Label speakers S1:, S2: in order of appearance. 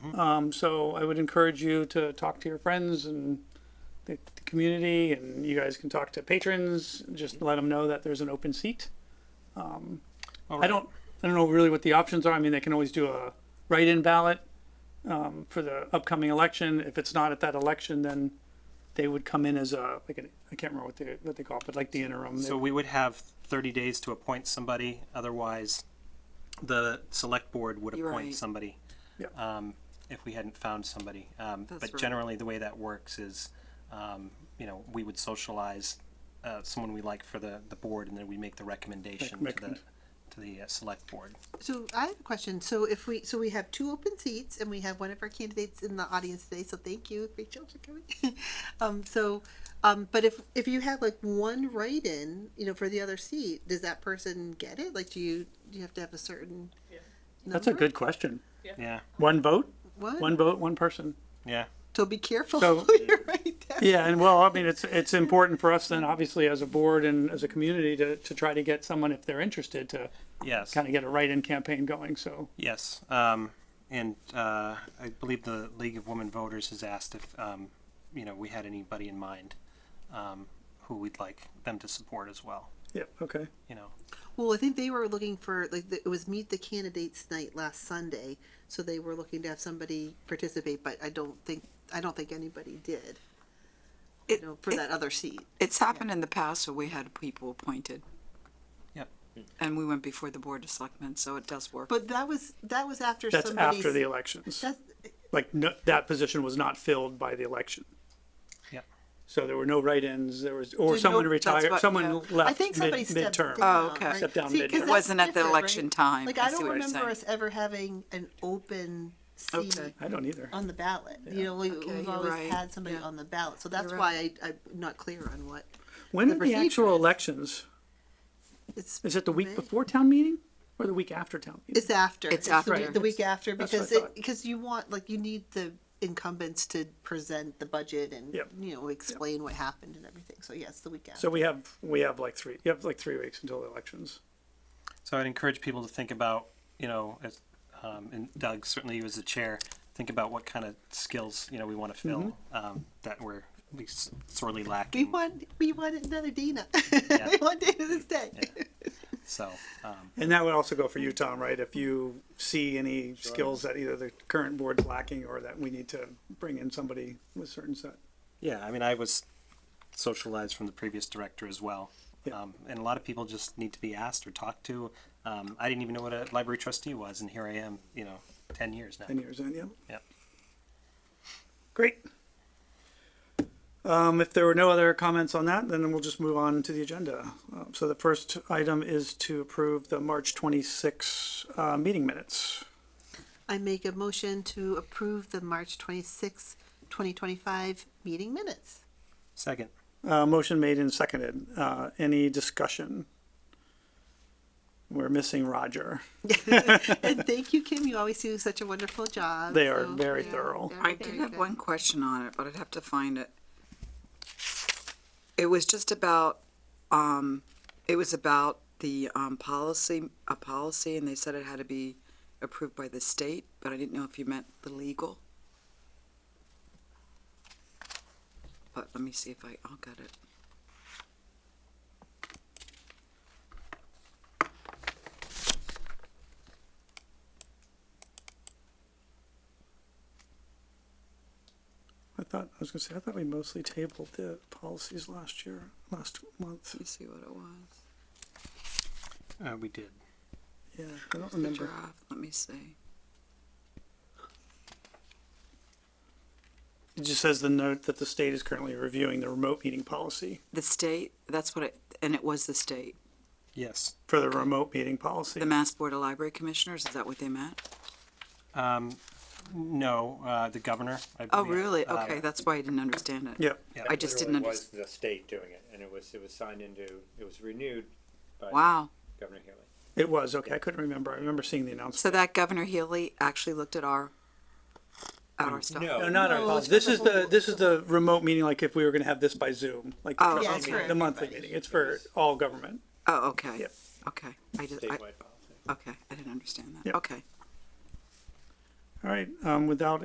S1: Um, so I would encourage you to talk to your friends and the, the community, and you guys can talk to patrons. Just let them know that there's an open seat.
S2: All
S1: I
S2: right.
S1: don't, I don't know really what the options are. I mean, they can always do a write-in ballot um, for the upcoming election. If it's not at that election, then they would come in as a like an, I can't remember what they what they call it, but like the interim. They-
S2: So we would have thirty days to appoint somebody, otherwise the select board would
S3: You're
S2: appoint
S3: right.
S2: somebody.
S1: Yeah.
S2: Um, if we hadn't found somebody. Um,
S3: That's
S2: but
S3: right.
S2: generally, the way that works is, um, you know, we would socialize uh, someone we like for the, the board and then we make the recommendation to the,
S1: Recommend.
S2: to the uh, select board.
S4: So I have a question. So if we, so we have two open seats and we have one of our candidates in the audience today, so thank you, Rachel, for coming. Um, so, um, but if, if you have like one write-in, you know, for the other seat, does that person get it? Like, do you, do you have to have a certain?
S1: That's a
S4: number?
S1: good question.
S2: Yeah,
S1: One vote, one
S4: One,
S1: vote, one person.
S2: yeah.
S4: so be careful
S1: So-
S4: who you write down.
S1: Yeah, and well, I mean, it's it's important for us then, obviously, as a board and as a community, to to try to get someone if they're interested to
S2: Yes.
S1: kind of get a write-in campaign going. So
S2: Yes, um, and uh, I believe the League of Women Voters has asked if um, you know we had anybody in mind um, who we'd like them to support as well.
S1: yeah, okay.
S2: You know,
S4: Well, I think they were looking for like the, it was meet the candidates night last Sunday, so they were looking to have somebody participate, but I don't think I don't think anybody did.
S3: It-
S4: you know, for
S3: it-
S4: that other seat.
S3: It's happened in the past where we had people appointed.
S2: Yep.
S3: And we went before the Board of Selectmen, so it does work.
S4: But that was that was after
S1: That's
S4: somebody's,
S1: after the elections.
S4: that's,
S1: Like no, that position was not filled by the election.
S2: Yep.
S1: So there were no write-ins. There was or
S4: Did
S1: someone
S4: no- that's
S1: retired.
S3: what-
S1: Someone
S3: yeah.
S1: left.
S4: I think somebody
S1: mid,
S4: stepped
S1: midterm.
S4: down.
S3: Oh, okay.
S4: right?
S1: Stepped down
S4: 'cause
S1: midterm. It
S4: that's
S3: wasn't at the
S4: different,
S3: election time.
S4: Like
S3: I
S4: I,
S3: see
S4: don't
S3: what you're
S4: remember
S3: saying.
S4: us ever having an open seat
S3: Okay.
S1: I don't either.
S4: on the ballot. You know, we,
S3: Okay,
S4: we've
S3: you're
S4: always
S3: right.
S4: had somebody
S3: Yeah.
S4: on the ballot, so that's
S3: You're
S4: why
S3: right.
S4: I, I'm not clear on what
S1: When
S4: the
S1: are the actual
S4: procedure is-
S1: elections?
S4: it's.
S1: Is it the week
S4: May.
S1: before town meeting or the week after town meeting?
S4: It's after.
S3: It's
S4: the
S3: after.
S4: week- The week after,
S1: That's what I
S4: because
S1: thought.
S4: it, because you want, like, you need the incumbents to present the budget and,
S1: Yep.
S4: you know, explain what happened and everything. So yes, the week
S1: So
S4: after.
S1: we have we have like three. You have like three weeks until the elections.
S2: so I'd encourage people to think about you know, as, um, and Doug certainly you as the chair, think about what kind of skills you know we want to fill um, that we're we s- sorely
S4: We
S2: lacking.
S4: want, we want another Dina.
S2: Yeah.
S4: We want Dana to stay.
S2: So um,
S1: And that would also go for you, Tom, right? If you see any skills that either the current board's lacking or that we need to bring in somebody with certain set.
S2: yeah, I mean, I was socialized from the previous director as well.
S1: Yeah.
S2: Um, and a lot of people just need to be asked or talked to. Um, I didn't even know what a library trustee was, and here I am, you know, 10 years now.
S1: Ten years in, yeah.
S2: Yep.
S1: Great. Um, if there were no other comments on that, then we'll just move on to the agenda. Uh, So the first item is to approve the March twenty-six, uh, meeting minutes.
S4: I make a motion to approve the March twenty-sixth, twenty twenty-five meeting minutes.
S2: Second.
S1: Uh, motion made and seconded. Uh, any discussion? We're missing Roger.
S4: And thank you, Kim. You always do such a wonderful job.
S1: They are
S4: So,
S1: very
S4: yeah,
S1: thorough.
S4: they're
S3: I
S4: very
S3: did have
S4: good.
S3: one question on it, but I'd have to find it. It was just about, um, it was about the, um, policy, a policy, and they said it had to be approved by the state, but I didn't know if you meant the legal. But let me see if I, I'll get it.
S1: I thought, I was gonna say, I thought we mostly tabled the policies last year, last month.
S3: Let me see what it was.
S2: Uh, we did.
S1: Yeah, I don't
S3: The
S1: remember.
S3: draft, let me see.
S1: It just says the note that the state is currently reviewing the remote meeting policy,
S3: The state, that's what it, and it was the state.
S2: Yes.
S1: for the remote meeting policy.
S3: The Mass Board of Library Commissioners, is that what they meant?
S2: Um, no, uh, the governor. I
S3: Oh,
S2: believe,
S3: really?
S2: uh,
S3: Okay, that's why I didn't understand it.
S1: Yep,
S2: yeah.
S3: I just didn't
S5: literally was
S3: understand.
S5: the state doing it, and it was, it was signed into, it was renewed by
S3: Wow.
S5: Governor Haley.
S1: it was, okay, I couldn't remember, I remember seeing the announcement.
S3: So that Governor Healy actually looked at our, at
S2: Um,
S3: our stuff.
S5: No.
S1: No, not our policy, this is the, this is the remote meeting, like if we were gonna have this by Zoom, like the
S3: Oh,
S1: trustee
S3: Yeah,
S4: it's for
S1: meeting, the monthly
S4: everybody.
S1: meeting, it's for all government.
S3: Oh, okay,
S1: Yep.
S3: okay. I just, I,
S5: Statewide policy.
S3: okay, I didn't understand that.
S1: Yep.
S3: Okay.
S1: All right, um, without